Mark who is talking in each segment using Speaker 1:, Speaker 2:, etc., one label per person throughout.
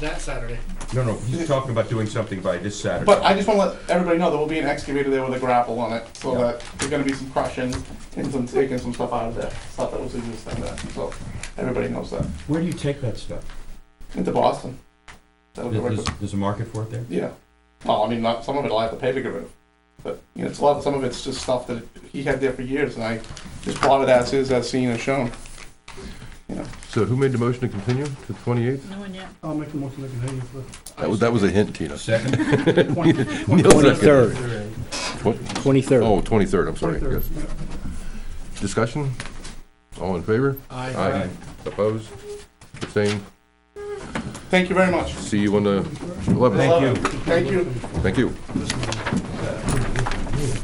Speaker 1: that Saturday.
Speaker 2: No, no, he's talking about doing something by this Saturday.
Speaker 3: But I just want to let everybody know there will be an excavator there with a grapple on it, so
Speaker 2: Yeah.
Speaker 3: that there's going to be some crushing and some taking some stuff out of there, stuff that was existing there. So everybody knows that.
Speaker 2: Where do you take that stuff?
Speaker 3: Into Boston. That'll go right
Speaker 2: There's,
Speaker 3: to,
Speaker 2: there's a market for it there?
Speaker 3: yeah. Well, I mean, not, some of it I'll have to pay to get rid of, but you know, it's a lot. Some of it's just stuff that he had there for years, and I just bought it as is, as seen and shown.
Speaker 4: So who made the motion to continue to twenty-eighth?
Speaker 5: No one yet.
Speaker 1: I'll make a motion to continue for.
Speaker 4: That was, that was a hint, Tina.
Speaker 2: Second?
Speaker 6: Twenty-third,
Speaker 4: What-
Speaker 6: twenty-third.
Speaker 4: Oh, twenty-third, I'm sorry. Yes. Discussion? All in favor?
Speaker 1: Aye.
Speaker 4: Aye. Opposed? Abstained?
Speaker 3: Thank you very much.
Speaker 4: See you on the eleventh.
Speaker 2: Thank you.
Speaker 3: Thank you.
Speaker 4: Thank you.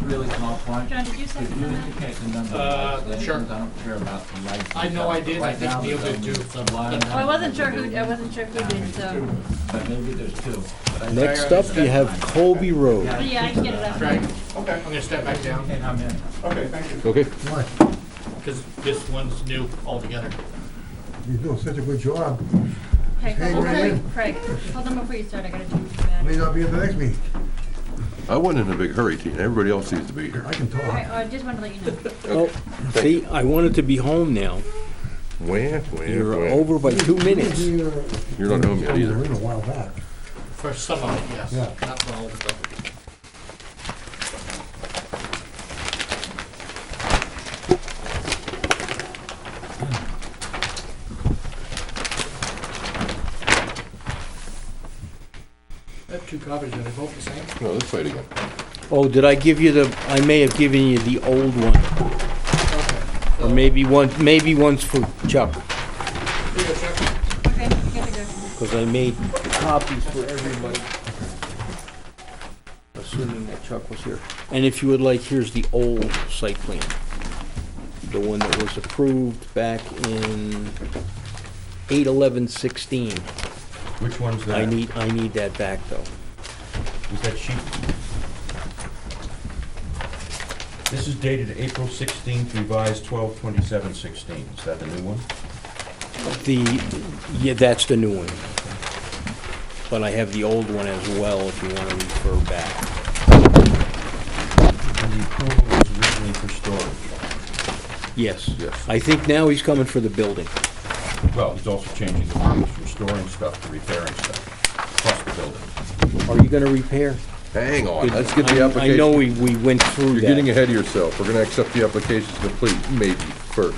Speaker 7: Really small point.
Speaker 5: John, did you send
Speaker 7: If you
Speaker 5: them out?
Speaker 7: indicate the number
Speaker 1: Uh,
Speaker 7: of lights,
Speaker 1: sure.
Speaker 7: I don't care about the lights.
Speaker 1: I know I did, I
Speaker 7: Right
Speaker 1: think
Speaker 7: now,
Speaker 1: Neil
Speaker 7: there's
Speaker 1: did
Speaker 7: only
Speaker 1: too.
Speaker 7: some line
Speaker 5: Oh, I wasn't sure who, I
Speaker 7: item,
Speaker 5: wasn't sure who did, so,
Speaker 7: But maybe there's two. But I-
Speaker 6: Next up, you have Colby Road.
Speaker 5: but yeah, I can get it up.
Speaker 1: Frank,
Speaker 3: Okay.
Speaker 1: I'm gonna step back down,
Speaker 7: And I'm in.
Speaker 3: Okay. Thank you.
Speaker 4: Okay.
Speaker 1: because this one's new altogether.
Speaker 8: You're doing such a good job.
Speaker 5: Craig,
Speaker 8: Hey,
Speaker 5: hold
Speaker 8: Ray.
Speaker 5: on, Craig, hold on before you start, I gotta do that.
Speaker 8: May not be at the next meeting.
Speaker 4: I wasn't in a big hurry, Tina. Everybody else seems to be here.
Speaker 8: I can talk.
Speaker 5: Alright, I just wanted to let you know.
Speaker 6: Oh, see, I wanted to be home now.
Speaker 4: Wah, wah,
Speaker 6: You're
Speaker 4: wah.
Speaker 6: over Mm-hmm. by two minutes.
Speaker 8: We, uh,
Speaker 4: You're not home
Speaker 8: we
Speaker 4: yet
Speaker 8: were
Speaker 4: either.
Speaker 8: in a while back.
Speaker 1: For some of it, yes,
Speaker 8: Yeah.
Speaker 1: not for all of it. I have two copies, are they both the same?
Speaker 4: No, let's fight again.
Speaker 6: Oh, did I give you the, I may have given you the old one,
Speaker 1: Okay.
Speaker 6: or maybe one, maybe one's for Chuck,
Speaker 1: Here you go, Chuck.
Speaker 5: Okay, gotta go.
Speaker 6: because I made copies for everybody. Assuming that Chuck was here. And if you would like, here's the old site plan. The one that was approved back in eight eleven sixteen.
Speaker 2: Which one's that?
Speaker 6: I need, I need that back, though.
Speaker 2: Is that sheet? This is dated April sixteenth, revised twelve twenty-seven sixteen. Is that the new one?
Speaker 6: The, yeah, that's the new one. But I have the old one as well, if you want to refer back.
Speaker 2: And the approval was originally for storage.
Speaker 6: Yes.
Speaker 4: Yes.
Speaker 6: I think now he's coming for the building.
Speaker 2: Well, he's also changing the rules from storing stuff to repairing stuff, plus the building.
Speaker 6: Are you going to repair?
Speaker 4: Hang on, let's get the
Speaker 6: I-
Speaker 4: application.
Speaker 6: I know we, we went through
Speaker 4: You're getting
Speaker 6: that.
Speaker 4: ahead of yourself. We're gonna accept the application complete, maybe, first.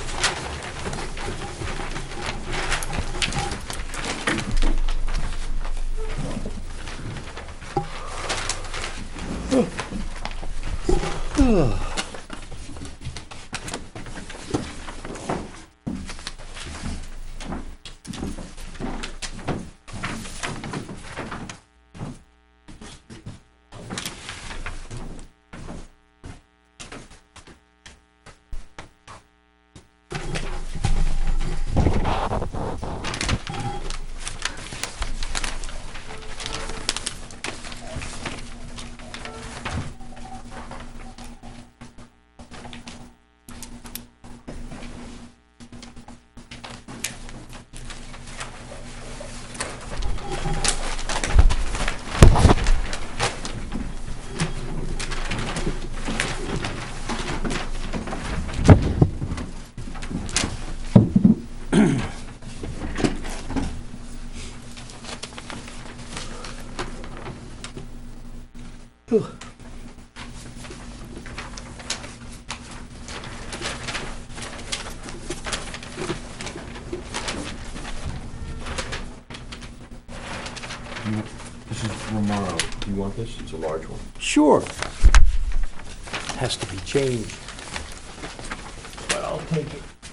Speaker 2: You- This is Romano. Do you want this? It's a large one.
Speaker 6: Sure. Has to be changed.
Speaker 7: But I'll take it.